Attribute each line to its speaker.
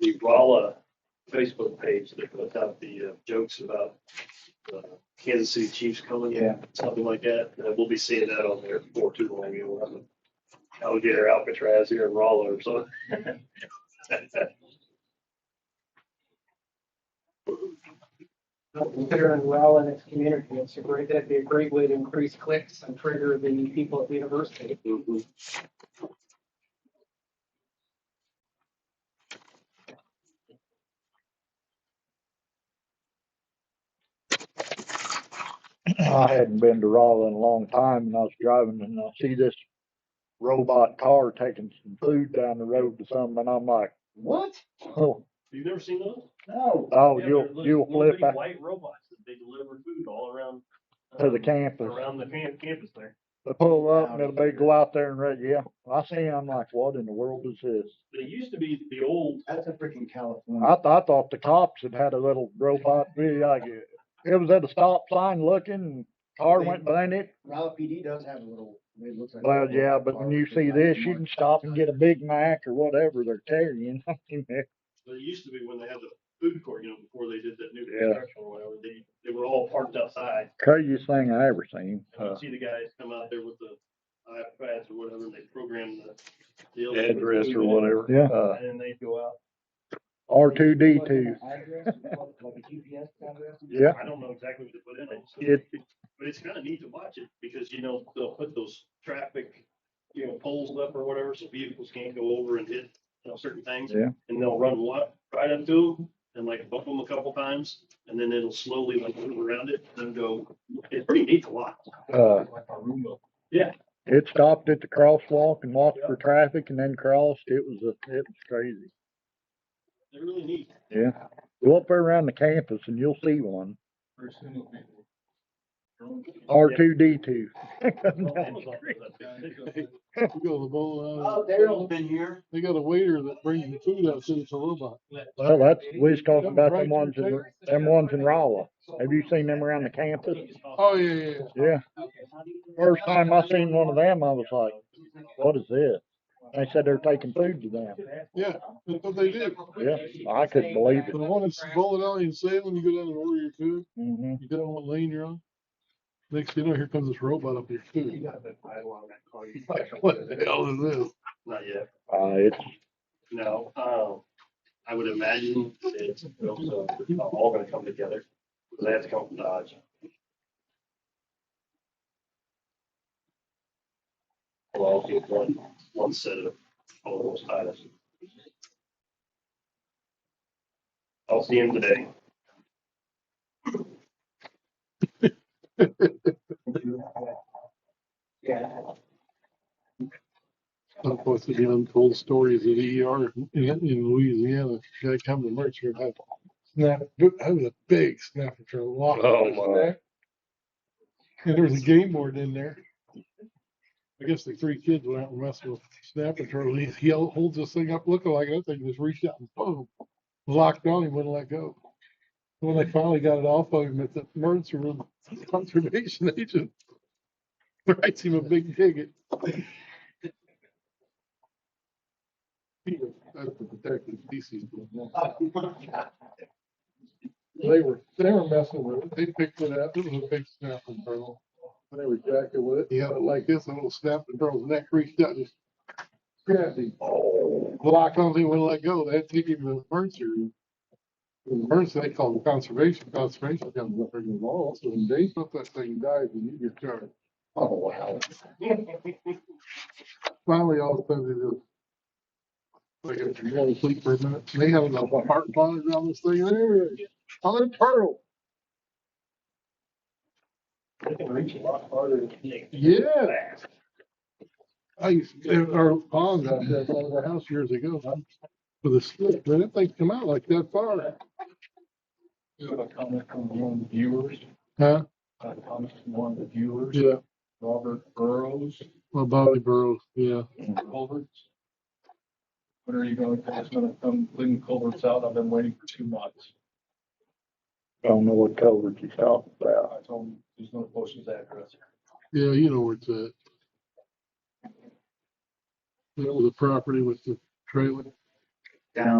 Speaker 1: the Rolla Facebook page that puts out the uh, jokes about uh, Kansas City Chiefs coming.
Speaker 2: Yeah.
Speaker 1: Something like that. Uh, We'll be seeing that on there before too long. You know, I'm- I'll get her Alcatraz here in Rolla or something.
Speaker 2: Considering well in its community, it's a great, that'd be a great way to increase clicks and trigger the people at the university.
Speaker 3: Mm-hmm.
Speaker 1: Mhm.
Speaker 3: I hadn't been to Raleigh in a long time and I was driving and I see this robot car taking some food down the road to something and I'm like,
Speaker 2: What?
Speaker 3: oh,
Speaker 1: You've never seen those?
Speaker 2: No.
Speaker 3: oh,
Speaker 1: Yeah,
Speaker 3: you'll,
Speaker 1: they're little-
Speaker 3: you'll
Speaker 1: little
Speaker 3: flip
Speaker 1: bitty
Speaker 3: out
Speaker 1: White robots that they deliver food all around.
Speaker 3: to the
Speaker 1: um,
Speaker 3: campus.
Speaker 1: Around the cam- campus there.
Speaker 3: They pull up and it'll be go out there and read, yeah. I see, I'm like, what in the world is this?
Speaker 1: They used to be the old,
Speaker 2: That's a freaking California.
Speaker 3: I thought, I thought the cops had had a little robot video. Like it, it was at a stop sign looking, car went behind it.
Speaker 2: Raleigh PD does have a little, it looks like.
Speaker 3: Well, yeah, but when you see this, you can stop and get a Big Mac or whatever they're carrying.
Speaker 1: they used to be when they had the food court, you know, before they did that new
Speaker 3: Yeah.
Speaker 1: construction or whatever, they, they were all parked outside.
Speaker 3: Craziest thing I ever seen.
Speaker 1: And
Speaker 4: Uh-huh.
Speaker 1: you see the guys come out there with the iPads or whatever, and they program the. deal.
Speaker 4: address or whatever.
Speaker 3: Yeah.
Speaker 4: Uh,
Speaker 1: And then they go out.
Speaker 3: R two D two. Yeah,
Speaker 1: I don't know exactly what to put in it. so-
Speaker 3: it,
Speaker 1: But it's kind of neat to watch it because, you know, they'll put those traffic, you know, poles up or whatever, so vehicles can't go over and hit, you know, certain things.
Speaker 3: Yeah.
Speaker 1: And they'll run wa- right up to them and like bump them a couple times and then it'll slowly like move around it and go. It's pretty neat to watch.
Speaker 3: uh, it stopped at the crosswalk and walked for traffic and then crossed. It was, a it was crazy.
Speaker 1: They're really neat.
Speaker 3: Yeah. Go up there around the campus and you'll see one. R two D two.
Speaker 1: Oh, Amazon does that too.
Speaker 5: We got a bowl out.
Speaker 2: Oh, Daryl's been here.
Speaker 5: They got a waiter that brings the food out, so it's a robot.
Speaker 3: Well, that's, we was talking about them ones, in them ones in Rolla. Have you seen them around the campus?
Speaker 5: Oh, yeah, yeah, yeah.
Speaker 3: Yeah. First time I seen one of them, I was like, what is this? They said they're taking food to them.
Speaker 5: Yeah, that's what they do.
Speaker 3: Yeah, I couldn't believe
Speaker 5: The one that's bowling alley in Salem, you go down and order your food,
Speaker 3: Mhm.
Speaker 5: you tell them what lane you're on. Next thing you know, here comes this robot up your food. Like, what the hell is this?
Speaker 1: Not yet.
Speaker 3: Uh, it's,
Speaker 1: No, um, I would imagine it's also all gonna come together, because they have to come from Dodge. Well, I'll get one, one set of all those titles. I'll see him today.
Speaker 5: Of course, the untold stories of the ER in, in Louisiana. Guy come to merch here, had snap, that was a big snapper for a lot of
Speaker 1: Oh, my.
Speaker 5: And there was a game board in there. I guess the three kids went out and messed with snapper turtle. He, he held- holds this thing up looking like that thing, just reached out and boom, locked on. He wouldn't let go. When they finally got it off of him at the emergency room, conservation agent writes him a big ticket. That's the protected species. They were, they were messing with it. They picked it up. It was a big snapping turtle. They were jacking with it. He had it like this, a little snapping turtle's neck reached out and just grabbed him. Locked on, he wouldn't let go. They had to take him to the emergency room. The emergency, they called him conservation. Conservation comes up there and involves, so when they put that thing dies, and you get charged. Oh, wow. Finally, all of a sudden, they just like if you want to sleep for a minute, they have enough heart bombs on this thing there. I'm a turtle.
Speaker 1: They can reach a lot farther than you think.
Speaker 5: Yeah. I used to, there are ponds out there by our house years ago. With a slip, man, that thing come out like that far.
Speaker 6: You have a comment from one of the viewers,
Speaker 5: Huh?
Speaker 6: a comment from one of the viewers,
Speaker 5: Yeah.
Speaker 6: Robert Burrows,
Speaker 5: Well, Bobby Burrows, yeah.
Speaker 6: Culverts. When are you going, to it's gonna come clean culverts out, I've been waiting for two months.
Speaker 3: I don't know what coverage he's talking about.
Speaker 6: I told him he's gonna post his address.
Speaker 5: Yeah, you know where it's at. That was a property with the trailer.
Speaker 2: Down